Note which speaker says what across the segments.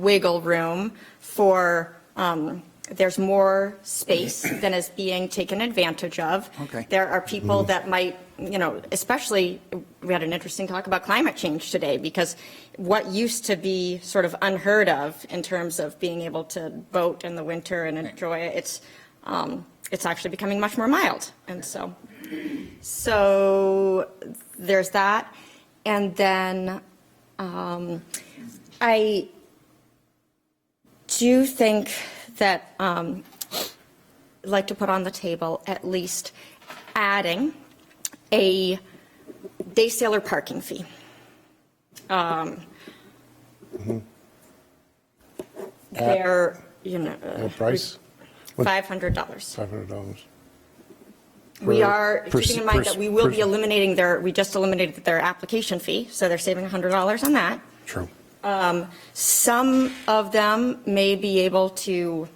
Speaker 1: wiggle room for, um, there's more space than is being taken advantage of.
Speaker 2: Okay.
Speaker 1: There are people that might, you know, especially, we had an interesting talk about climate change today, because what used to be sort of unheard of in terms of being able to boat in the winter and enjoy it, it's, um, it's actually becoming much more mild, and so. So there's that. And then um, I do think that, um, I'd like to put on the table at least adding a day sailor parking fee. Um,
Speaker 3: Mm-hmm.
Speaker 1: There, you know. uh,
Speaker 3: Uh, What price? What-
Speaker 1: $500.
Speaker 3: $500.
Speaker 1: We
Speaker 3: per-
Speaker 1: are,
Speaker 3: per-
Speaker 1: keeping in mind
Speaker 3: per-
Speaker 1: that we will be
Speaker 3: per-
Speaker 1: eliminating their, we just eliminated their application fee, so they're saving $100 on that.
Speaker 3: True.
Speaker 1: Some of them may be able to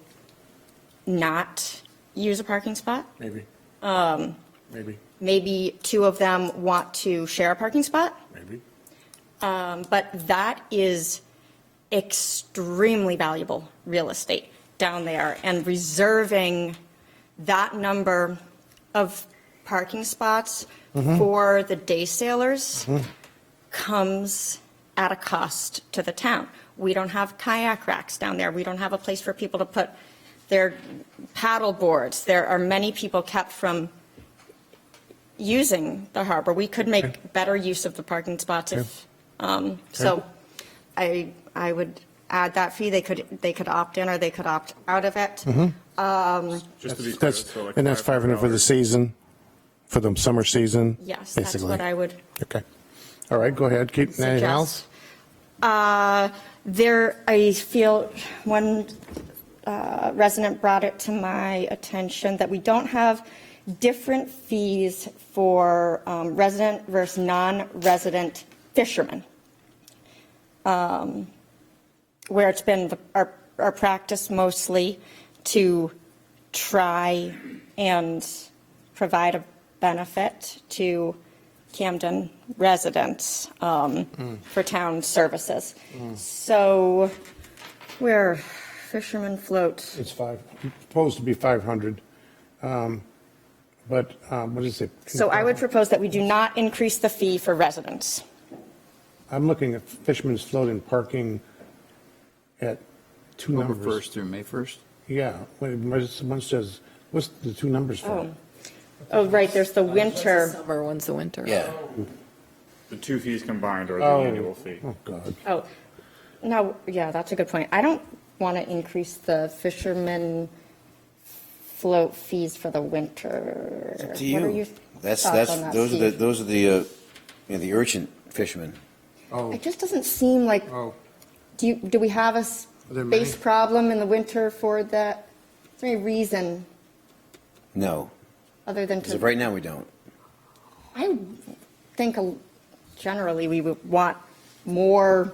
Speaker 1: not use a parking spot.
Speaker 3: Maybe.
Speaker 1: Um.
Speaker 3: Maybe,
Speaker 1: Maybe two of them want to share a parking spot,
Speaker 3: maybe.
Speaker 1: Um, but that is extremely valuable real estate down there. And reserving that number of parking spots for the day sailors comes at a cost to the town. We don't have kayak racks down there. We don't have a place for people to put their paddle boards. There are many people kept from using the harbor. We could make better use of the parking spots if, um, so I, I would add that fee. They could, they could opt in or they could opt out of it.
Speaker 3: Mm-hmm.
Speaker 4: Just to be clear,
Speaker 3: That's,
Speaker 4: so like.
Speaker 3: and that's 500 for the season, for the summer season?
Speaker 1: Yes, that's what
Speaker 3: basically.
Speaker 1: I would
Speaker 3: Okay. All right, go ahead. Keep, anything else?
Speaker 1: suggest. Uh, There, I feel, one uh, resident brought it to my attention that we don't have different fees for um, resident versus non-resident fishermen. Um, Where it's been the- our, our practice mostly to try and provide a benefit to Camden residents um, for town services. So where fishermen float,
Speaker 3: It's five, supposed to be 500. um, But um, what is it?
Speaker 1: so I would propose that we do not increase the fee for residents.
Speaker 3: I'm looking at Fisherman's Float and parking at two
Speaker 2: October
Speaker 3: numbers.
Speaker 2: 1st through May 1st?
Speaker 3: Yeah, when someone says, what's the two numbers for?
Speaker 1: Oh, right, there's the
Speaker 5: One's the
Speaker 1: winter,
Speaker 5: Summer, one's the winter.
Speaker 2: Yeah.
Speaker 1: Oh,
Speaker 4: The two fees combined are the
Speaker 3: Oh.
Speaker 4: annual fee.
Speaker 3: Oh, God.
Speaker 1: oh, no, yeah, that's a good point. I don't want to increase the fishermen float fees for the winter.
Speaker 6: Up to
Speaker 1: What are
Speaker 6: you.
Speaker 1: your
Speaker 6: That's,
Speaker 1: thoughts
Speaker 6: that's,
Speaker 1: on that,
Speaker 6: those are the,
Speaker 1: Steve?
Speaker 6: those are the, uh, you know, the urchin fishermen.
Speaker 1: It just doesn't seem like,
Speaker 3: Oh.
Speaker 1: do you, do we have a
Speaker 3: Are there many?
Speaker 1: space problem in the winter for that? Is there any reason
Speaker 6: No,
Speaker 1: other than
Speaker 6: as of
Speaker 1: to,
Speaker 6: right now, we don't.
Speaker 1: I think a- generally we would want more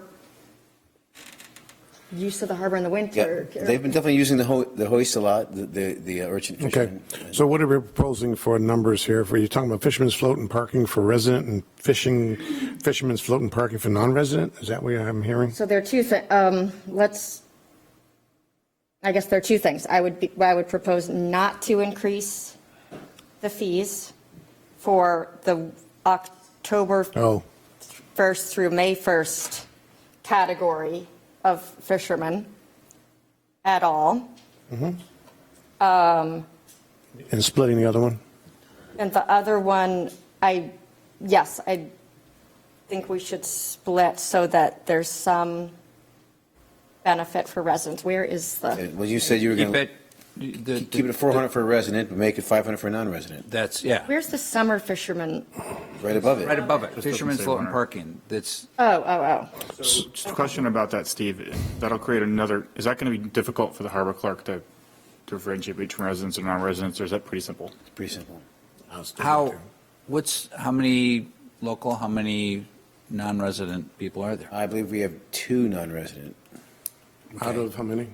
Speaker 1: use of the harbor in the
Speaker 6: Yeah,
Speaker 1: winter.
Speaker 6: they've been definitely using the ho, the hoist a lot, the, the the urchin
Speaker 3: Okay,
Speaker 6: fishermen.
Speaker 3: so what are we proposing for numbers here? For you're talking about fishermen's float and parking for resident and fishing, fishermen's float and parking for non-resident? Is that what I'm hearing?
Speaker 1: So there are two, thi- um, let's, I guess there are two things. I would be, I would propose not to increase the fees for the October
Speaker 3: Oh,
Speaker 1: first through May first category of fishermen at all. Um,
Speaker 3: and splitting the other one?
Speaker 1: And the other one, I, yes, I think we should split so that there's some benefit for residents. Where is the,
Speaker 6: Well, you said you were
Speaker 2: Keep
Speaker 6: gonna
Speaker 2: it, the.
Speaker 6: keep it at four hundred for a resident, but make it five hundred for a non-resident,
Speaker 2: That's, yeah,
Speaker 1: where's the summer fisherman?
Speaker 6: right above
Speaker 2: right
Speaker 6: it.
Speaker 2: above it,
Speaker 4: doesn't
Speaker 2: fisherman's
Speaker 4: say
Speaker 2: float and
Speaker 4: runner.
Speaker 2: parking, that's,
Speaker 1: Oh, oh, oh.
Speaker 4: So just a question about that, Steve. That'll create another, is that going to be difficult for the harbor clerk to differentiate between residents and non-residents, or is that pretty simple?
Speaker 6: It's Pretty simple.
Speaker 2: how, what's, how many local, how many non-resident people are there?
Speaker 6: I believe we have two non-resident
Speaker 3: Out of how many?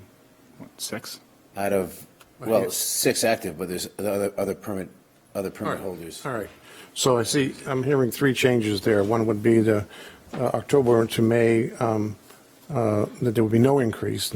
Speaker 4: What, Six?
Speaker 6: out of, well, six active, but there's other, other permit, other permit holders.
Speaker 3: All right, so I see, I'm hearing three changes there. One would be the uh, October to May um, uh, that there would be no increase,